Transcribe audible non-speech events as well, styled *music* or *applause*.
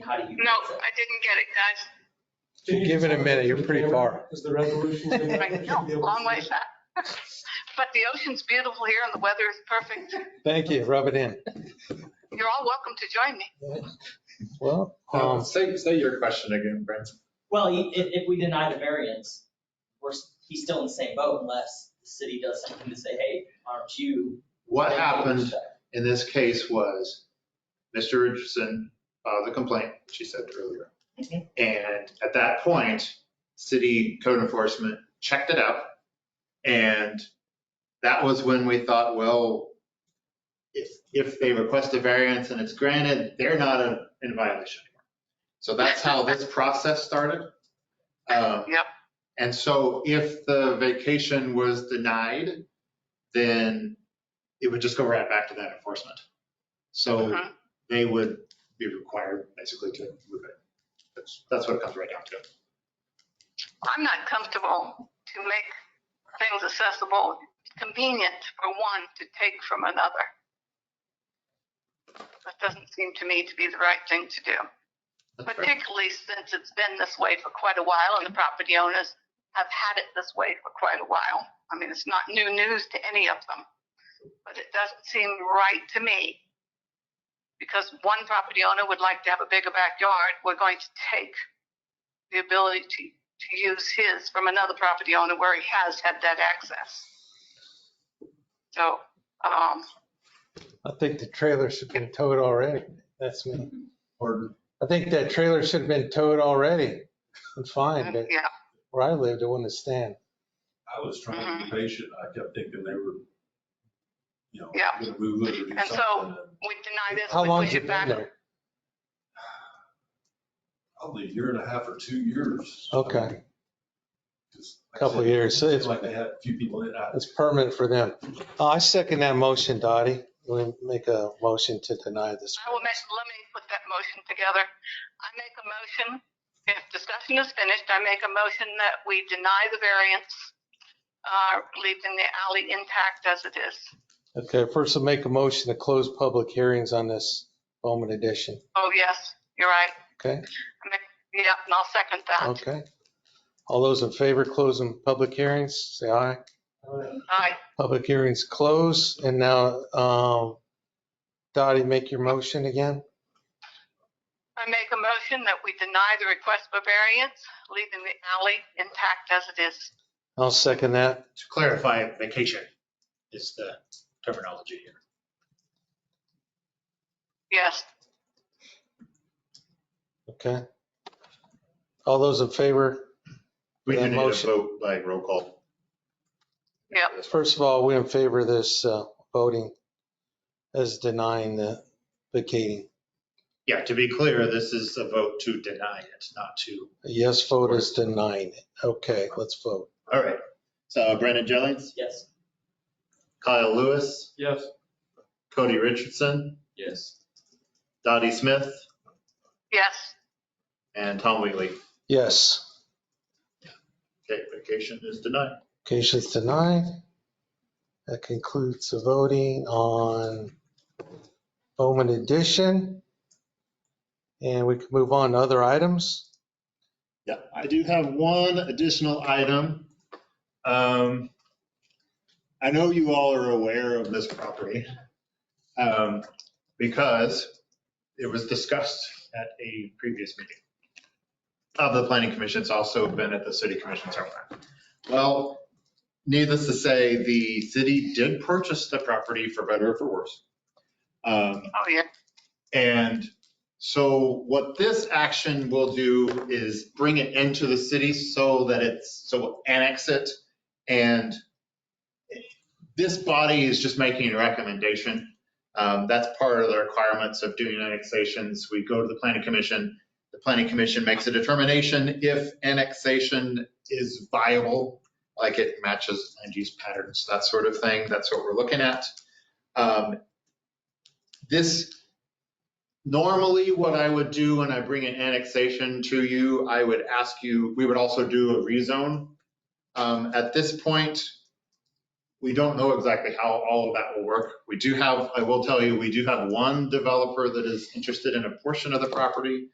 how do you? No, I didn't get it, guys. Give it a minute, you're pretty far. Is the *laughs* resolution? good enough? Right, no, long ways out. *laughs* But the ocean's beautiful here and the weather is perfect. Thank you, rub it in. You're all welcome to join me. Well, Uh, um, Say, say your question again, Brent. Well, i- if, if we deny the variance, we're, s- he's still in the same boat unless the city does something to say, hey, aren't you? What happened in this case was Mr. Richardson, uh, the complaint she said earlier. And at that point, city code enforcement checked it out. And that was when we thought, well, if, if they request a variance and it's granted, they're not in- in violation anymore. So that's how this process started. Um, Yep. And so if the vacation was denied, then it would just go right back to that enforcement. So Mhm. they would be required basically to move it. That's, that's what it comes right down to. I'm not comfortable to make things accessible, convenient for one to take from another. That doesn't seem to me to be the right thing to do, That's right. particularly since it's been this way for quite a while and the property owners have had it this way for quite a while. I mean, it's not new news to any of them, but it doesn't seem right to me. Because one property owner would like to have a bigger backyard, we're going to take the ability to to use his from another property owner where he has had that access. So, um, I think the trailer should have been towed already. That's me. Or I think that trailer should have been towed already. I'm fine, but yeah, where I lived, it wouldn't have stand. I was trying Mm-hmm. to be patient. I kept thinking they were, you know, Yeah. gonna move it or do And so- something. we deny this, How we long's push it it been back. there? Probably a year and a half or two years. Okay, Just like I couple of said, years. So It's it's, like they had a few people in. I- it's permanent for them. Uh, I second that motion, Dottie. We make a motion to deny this. I will make, let me put that motion together. I make a motion, if discussion is finished, I make a motion that we deny the variance, uh, leaving the alley intact as it is. Okay, first I'll make a motion to close public hearings on this Bowman edition. Oh, yes, you're right. Okay. I make- Yeah, and I'll second that. Okay. All those in favor closing public hearings, say aye. Aye. Public hearings closed. And now, um, Dottie, make your motion again. I make a motion that we deny the request for variance, leaving the alley intact as it is. I'll second that. to clarify, vacation is the terminology here. Yes, Okay. All those in favor, We do That need to motion- vote by roll call. Yep. first of all, we're in favor of this uh, voting as denying the vacating. Yeah, to be clear, this is a vote to deny it, not to. A yes vote is denying it. Okay, let's vote. All right. So Brandon Jennings, Yes. Kyle Lewis, Yes. Cody Richardson, Yes. Dottie Smith, yes, and Tom Wheatley. Yes, Okay, vacation is denied. vacation's denied. That concludes the voting on Bowman Edition. And we can move on to other items. Yeah, I do have one additional item. Um, I know you all are aware of this property um, because it was discussed at a previous meeting of the planning commission. It's also been at the city commission several times. Well, needless to say, the city did purchase the property for better or for worse. Um, oh, yeah, and so what this action will do is bring it into the city so that it's, so we'll annex it. And this body is just making a recommendation. Um, That's part of the requirements of doing annexations. We go to the planning commission. The planning commission makes a determination if annexation is viable, like it matches land use patterns, that sort of thing. That's what we're looking at. Um, This Normally, what I would do when I bring an annexation to you, I would ask you, we would also do a rezone. Um, At this point, we don't know exactly how all of that will work. We do have, I will tell you, we do have one developer that is interested in a portion of the property.